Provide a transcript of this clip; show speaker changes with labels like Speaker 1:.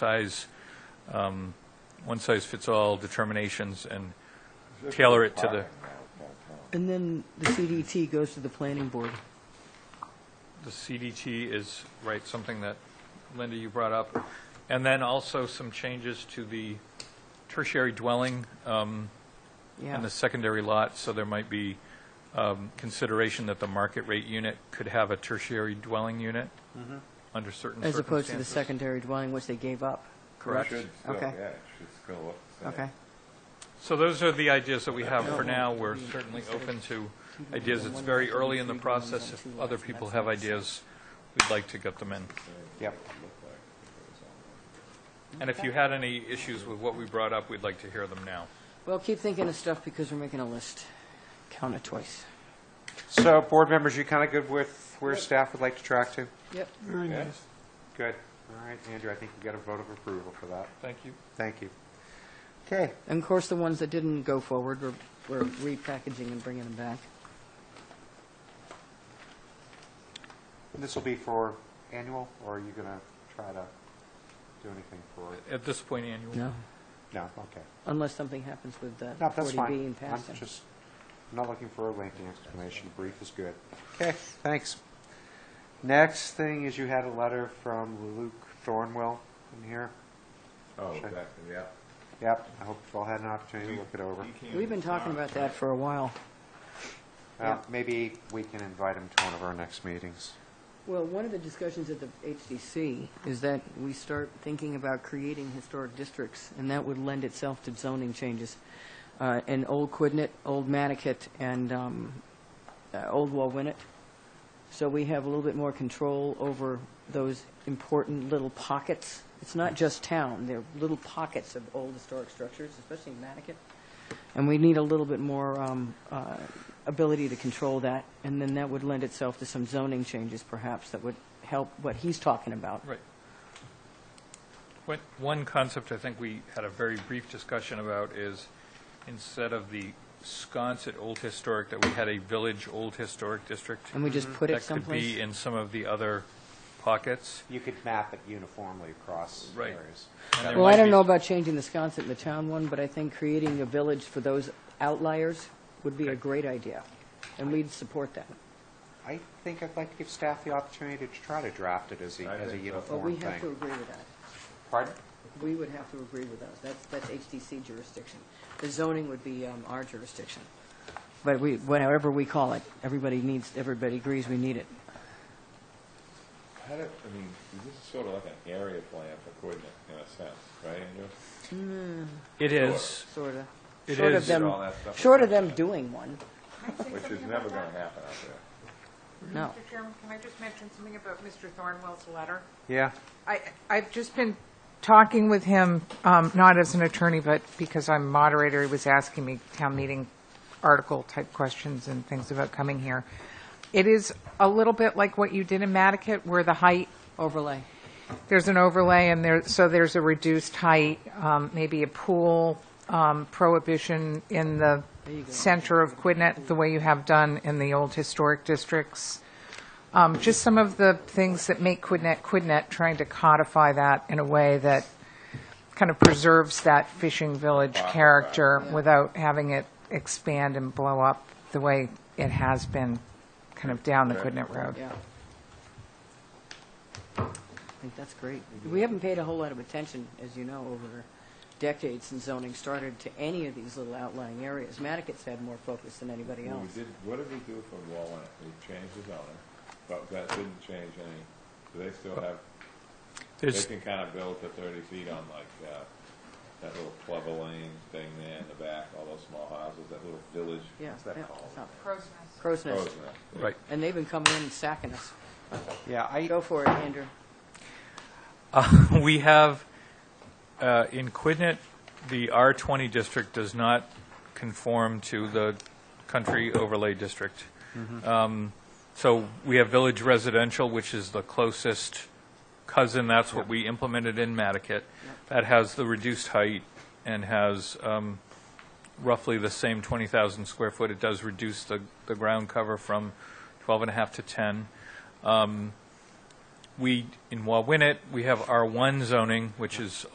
Speaker 1: size, um, one-size-fits-all determinations and tailor it to the,
Speaker 2: And then the CDT goes to the planning board.
Speaker 1: the CDT is, right, something that, Linda, you brought up. And then also some changes to the tertiary dwelling um, and
Speaker 2: Yeah.
Speaker 1: the secondary lot, so there might be um, consideration that the market rate unit could have a tertiary dwelling unit under certain circumstances.
Speaker 2: Mm-hmm. As opposed to the secondary dwelling, which they gave up.
Speaker 1: Correct.
Speaker 3: Should still,
Speaker 2: Okay.
Speaker 3: yeah, it should still look the same.
Speaker 2: Okay.
Speaker 1: So those are the ideas that we have for now. We're certainly open to ideas. It's very early in the process. If other people have ideas, we'd like to get them in.
Speaker 4: Yep.
Speaker 1: And if you had any issues with what we brought up, we'd like to hear them now.
Speaker 2: Well, keep thinking of stuff because we're making a list. Count it twice.
Speaker 4: So, board members, you kind of good with where staff would like to track to?
Speaker 2: Yep.
Speaker 4: Good. All right, Andrew, I think you got a vote of approval for that.
Speaker 1: Thank you.
Speaker 4: Thank you. Okay.
Speaker 2: And of course, the ones that didn't go forward, we're we're repackaging and bringing them back.
Speaker 4: This will be for annual, or are you going to try to do anything for,
Speaker 1: At this point, annual.
Speaker 2: No,
Speaker 4: no, okay.
Speaker 2: unless something happens with that
Speaker 4: No, that's
Speaker 2: 40B
Speaker 4: fine.
Speaker 2: and
Speaker 4: I'm
Speaker 2: passing.
Speaker 4: just, I'm not looking for a lengthy explanation. Brief is good. Okay, thanks. Next thing is you had a letter from Luke Thornwell in here.
Speaker 3: Oh,
Speaker 4: Sure.
Speaker 3: that, yeah.
Speaker 4: Yep, I hope you've all had an opportunity to look it over.
Speaker 2: We've been talking about that for a while.
Speaker 4: Uh, Maybe we can invite him to one of our next meetings.
Speaker 2: Well, one of the discussions at the HDC is that we start thinking about creating historic districts, and that would lend itself to zoning changes. Uh, And Old Quidnet, Old Manicat, and um, uh, Old Wallwinnet. So we have a little bit more control over those important little pockets. It's not just town, they're little pockets of old historic structures, especially in Manicat. And we need a little bit more um, uh, ability to control that, and then that would lend itself to some zoning changes perhaps that would help what he's talking about.
Speaker 1: Right. One- One concept I think we had a very brief discussion about is, instead of the sconce at Old Historic, that we had a village Old Historic District.
Speaker 2: And we just put it
Speaker 1: Mm-hmm. That could
Speaker 2: someplace.
Speaker 1: be in some of the other pockets.
Speaker 4: You could map it uniformly across
Speaker 1: Right.
Speaker 4: areas.
Speaker 1: And there
Speaker 2: Well, I
Speaker 1: might
Speaker 2: don't
Speaker 1: be-
Speaker 2: know about changing the sconset in the town one, but I think creating a village for those outliers would be a great idea, and we'd support that.
Speaker 4: I think I'd like to give staff the opportunity to try to draft it as a,
Speaker 3: I
Speaker 4: as a
Speaker 3: think so.
Speaker 2: But we
Speaker 4: uniform
Speaker 2: have to
Speaker 4: thing.
Speaker 2: agree with that.
Speaker 4: Pardon?
Speaker 2: We would have to agree with those. That's, that's HDC jurisdiction. The zoning would be um, our jurisdiction. But we, whatever we call it, everybody needs, everybody agrees we need it.
Speaker 3: How do, I mean, this is sort of like an area plan for coordinate in a sense, right, Andrew?
Speaker 1: It is.
Speaker 2: Sort of.
Speaker 1: It
Speaker 2: Short of
Speaker 1: is.
Speaker 2: them,
Speaker 3: All that stuff.
Speaker 2: short of them doing one,
Speaker 3: Which is never going to happen out there.
Speaker 2: no.
Speaker 5: Mr. Chairman, can I just mention something about Mr. Thornwell's letter?
Speaker 4: Yeah.
Speaker 5: I, I've just been talking with him, um, not as an attorney, but because I'm moderator, he was asking me town meeting article-type questions and things about coming here. It is a little bit like what you did in Matticat, where the height
Speaker 2: Overlay.
Speaker 5: there's an overlay, and there, so there's a reduced height, um, maybe a pool um, prohibition in the center of Quidnet, the way you have done in the old historic districts. Um, Just some of the things that make Quidnet Quidnet, trying to codify that in a way that kind of preserves that fishing village character without having it expand and blow up the way it has been, kind of down the Quidnet Road.
Speaker 2: Yeah. I think that's great. We haven't paid a whole lot of attention, as you know, over decades since zoning started to any of these little outlying areas. Maticat's had more focus than anybody
Speaker 3: Well, We
Speaker 2: else.
Speaker 3: did, what did we do for Walnut? We changed the zoning, but that didn't change any, do they still have, they
Speaker 1: There's-
Speaker 3: can kind of build to thirty feet on like, uh, that little clubber lane thing there in the back, all those small houses, that little village,
Speaker 2: Yeah,
Speaker 3: what's
Speaker 2: yeah,
Speaker 3: that called?
Speaker 2: it's not-
Speaker 5: Crow's
Speaker 2: Crow's
Speaker 3: Oh,
Speaker 2: Nest.
Speaker 3: isn't it?
Speaker 1: Right.
Speaker 2: And they've been coming in and sacking us.
Speaker 4: Yeah, I,
Speaker 2: Go for it, Andrew.
Speaker 1: We have, uh, in Quidnet, the R20 district does not conform to the country overlay district. Um, So we have village residential, which is the closest cousin, that's what we implemented in Matticat. That has the reduced height and has um, roughly the same 20,000 square foot. It does reduce the the ground cover from 12 and a half to 10. we, in Wawinet, we have R1 zoning, which is